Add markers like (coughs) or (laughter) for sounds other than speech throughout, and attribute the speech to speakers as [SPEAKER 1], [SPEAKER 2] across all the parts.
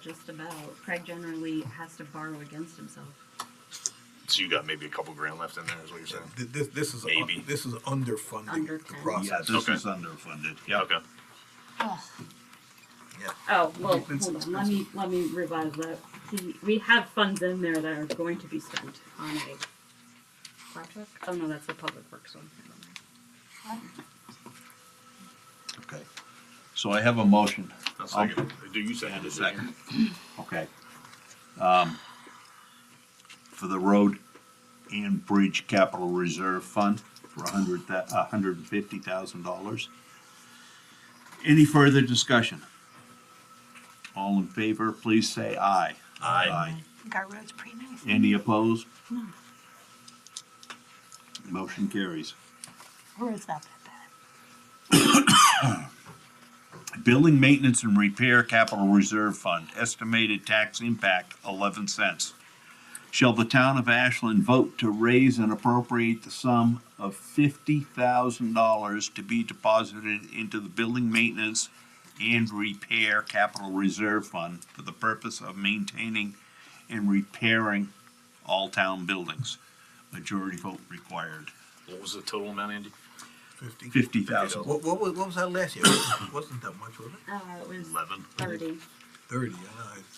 [SPEAKER 1] just about. Craig generally has to borrow against himself.
[SPEAKER 2] So you got maybe a couple grand left in there, is what you're saying?
[SPEAKER 3] Th- This, this is, un-
[SPEAKER 2] Maybe.
[SPEAKER 3] this is underfunding
[SPEAKER 1] Under
[SPEAKER 3] the
[SPEAKER 1] ten.
[SPEAKER 4] Yeah,
[SPEAKER 3] process.
[SPEAKER 4] this
[SPEAKER 2] Okay.
[SPEAKER 4] is underfunded, yeah.
[SPEAKER 2] Okay.
[SPEAKER 3] Yeah.
[SPEAKER 5] Oh, well,
[SPEAKER 3] Defense
[SPEAKER 1] Hold on, let me, let me revise that. He- We have funds in there that are going to be spent on a project. Oh, no, that's the public works one. Never mind.
[SPEAKER 4] Okay. So I have a motion.
[SPEAKER 2] I'll second. Do you Um, second it?
[SPEAKER 4] Second. Okay. Um, For the road and bridge capital reserve fund for a hundred, a hundred and fifty thousand dollars. Any further discussion? All in favor, please say aye.
[SPEAKER 2] Aye.
[SPEAKER 6] Our road's pretty nice.
[SPEAKER 4] Any opposed? Motion carries.
[SPEAKER 6] Our road's not that bad.
[SPEAKER 4] Building maintenance and repair capital reserve fund, estimated tax impact eleven cents. Shall the town of Ashland vote to raise and appropriate the sum of fifty thousand dollars to be deposited into the building maintenance and repair capital reserve fund for the purpose of maintaining and repairing all town buildings? Majority vote required.
[SPEAKER 2] What was the total amount, Andy?
[SPEAKER 3] Fifty.
[SPEAKER 4] Fifty thousand.
[SPEAKER 3] What, what was, what was that last year? (coughs) Wasn't that much, was it?
[SPEAKER 1] Uh, it was
[SPEAKER 2] Eleven.
[SPEAKER 1] thirty.
[SPEAKER 3] Thirty,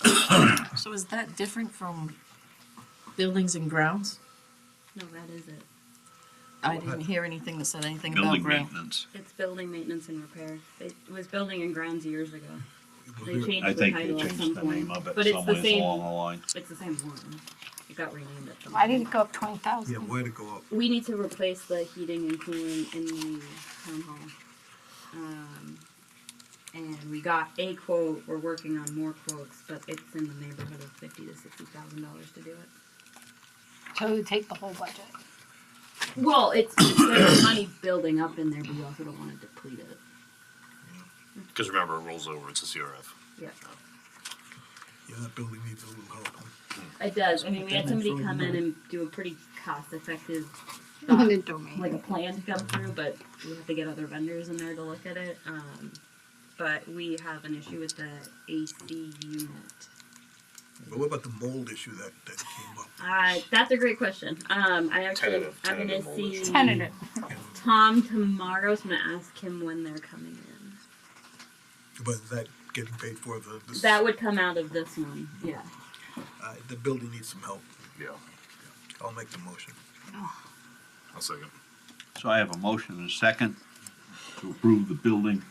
[SPEAKER 3] I know.
[SPEAKER 7] So is that different from buildings and grounds?
[SPEAKER 1] No, that is it.
[SPEAKER 7] I didn't hear anything that said anything about
[SPEAKER 4] Building
[SPEAKER 7] ground.
[SPEAKER 4] maintenance.
[SPEAKER 1] It's building maintenance and repair. It was building and grounds years ago. They
[SPEAKER 3] It was-
[SPEAKER 1] changed
[SPEAKER 4] I
[SPEAKER 1] the
[SPEAKER 4] think they
[SPEAKER 1] title at some
[SPEAKER 4] changed the name
[SPEAKER 1] point,
[SPEAKER 4] of
[SPEAKER 1] but
[SPEAKER 4] it
[SPEAKER 1] it's the
[SPEAKER 4] somewhere along
[SPEAKER 1] same.
[SPEAKER 4] the line.
[SPEAKER 1] It's the same one. It got renamed at the.
[SPEAKER 6] Why did it go up twenty
[SPEAKER 3] Yeah,
[SPEAKER 6] thousand?
[SPEAKER 3] way to go up.
[SPEAKER 1] We need to replace the heating and cooling in the town hall. Um, and we got a quote, we're working on more quotes, but it's in the neighborhood of fifty to sixty thousand dollars to do it.
[SPEAKER 6] So you take the whole budget.
[SPEAKER 1] Well, it's, it's there's money building up in there, but you also don't wanna deplete it.
[SPEAKER 2] Because remember, it rolls over. It's a CRF.
[SPEAKER 1] Yeah,
[SPEAKER 3] Yeah, that building needs a little help. huh?
[SPEAKER 1] it does. I mean, we had somebody come in and do a pretty cost-effective thought like a plan to come through, but we have to get other vendors in there to look at it. Um, but we have an issue with the AC unit.
[SPEAKER 3] But what about the mold issue that, that came up?
[SPEAKER 1] Uh, that's a great question. Um, I actually,
[SPEAKER 2] Tentative-
[SPEAKER 1] I'm gonna
[SPEAKER 2] tentative
[SPEAKER 1] see
[SPEAKER 6] Tentative.
[SPEAKER 1] Tom tomorrow, so I'm gonna ask him when they're coming in.
[SPEAKER 3] But is that getting paid for the, this,
[SPEAKER 1] That
[SPEAKER 3] uh,
[SPEAKER 1] would come out of this one, yeah.
[SPEAKER 3] the building needs some help.
[SPEAKER 2] Yeah.
[SPEAKER 3] I'll make the motion.
[SPEAKER 2] I'll second.
[SPEAKER 4] So I have a motion and a second to approve the building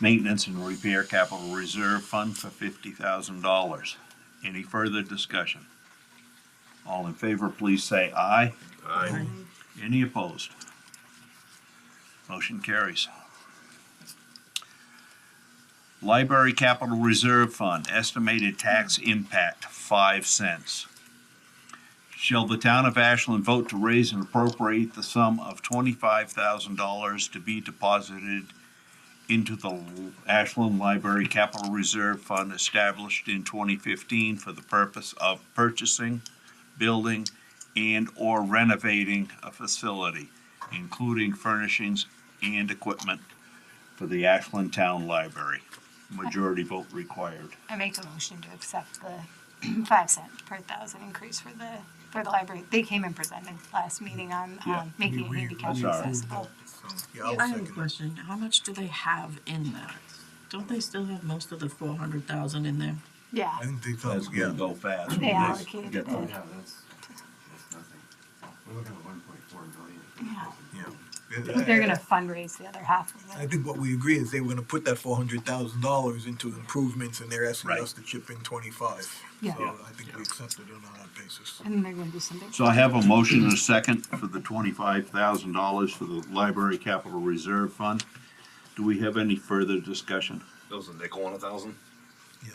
[SPEAKER 4] maintenance and repair capital reserve fund for fifty thousand dollars. Any further discussion? All in favor, please say aye.
[SPEAKER 2] Aye.
[SPEAKER 4] Any opposed? Motion carries. Library Capital Reserve Fund, estimated tax impact five cents. Shall the town of Ashland vote to raise and appropriate the sum of twenty-five thousand dollars to be deposited into the Ashland Library Capital Reserve Fund established in twenty fifteen for the purpose of purchasing, building, and/or renovating a facility, including furnishings and equipment for the Ashland Town Library. Majority vote required.
[SPEAKER 6] I make a motion to accept the (clears throat) five cent per thousand increase for the, for the library. They came and presented last meeting on,
[SPEAKER 4] Yeah.
[SPEAKER 6] um, making
[SPEAKER 3] We-
[SPEAKER 6] it
[SPEAKER 3] we-
[SPEAKER 6] handicap
[SPEAKER 4] I'm sorry.
[SPEAKER 6] accessible.
[SPEAKER 3] So, Yeah, I'll
[SPEAKER 7] I have a
[SPEAKER 3] second it.
[SPEAKER 7] question. How much do they have in that? Don't they still have most of the four hundred thousand in there?
[SPEAKER 6] Yeah,
[SPEAKER 3] I think they thought,
[SPEAKER 4] That's
[SPEAKER 3] yeah.
[SPEAKER 4] gonna go fast.
[SPEAKER 6] they
[SPEAKER 4] Yes.
[SPEAKER 6] allocated
[SPEAKER 4] Get
[SPEAKER 6] it.
[SPEAKER 4] the-
[SPEAKER 8] Yeah, that's, that's nothing. We're looking at one point four billion.
[SPEAKER 6] Yeah.
[SPEAKER 3] Yeah.
[SPEAKER 6] They're gonna fundraise the other half of
[SPEAKER 3] I
[SPEAKER 6] it.
[SPEAKER 3] think what we agree is they were gonna put that four hundred thousand dollars into improvements and they're asking
[SPEAKER 4] Right.
[SPEAKER 3] us to chip in twenty-five.
[SPEAKER 6] Yeah.
[SPEAKER 3] So I think we accepted it on that basis.
[SPEAKER 6] And they're gonna do some big.
[SPEAKER 4] So I have a motion and a second for the twenty-five thousand dollars for the Library Capital Reserve Fund. Do we have any further discussion?
[SPEAKER 2] That was a nickel on a thousand.
[SPEAKER 3] Yeah.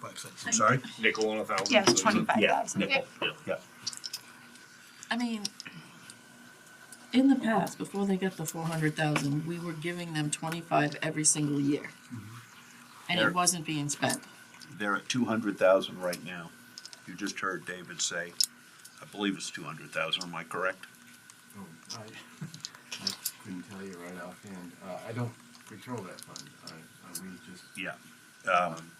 [SPEAKER 3] Five cents.
[SPEAKER 4] I'm sorry?
[SPEAKER 2] Nickel on a thousand.
[SPEAKER 6] Yeah, it's
[SPEAKER 2] so a-
[SPEAKER 6] twenty-five thousand.
[SPEAKER 4] Nickel, yeah.
[SPEAKER 7] I mean, in the past, before they got the four hundred thousand, we were giving them twenty-five every single year. And
[SPEAKER 4] There-
[SPEAKER 7] it wasn't being spent.
[SPEAKER 4] They're at two hundred thousand right now. You just heard David say, I believe it's two hundred thousand, am I correct?
[SPEAKER 8] Oh, I, I couldn't tell you right offhand. Uh, I don't control that fund. I, I, we uh, just
[SPEAKER 4] Yeah.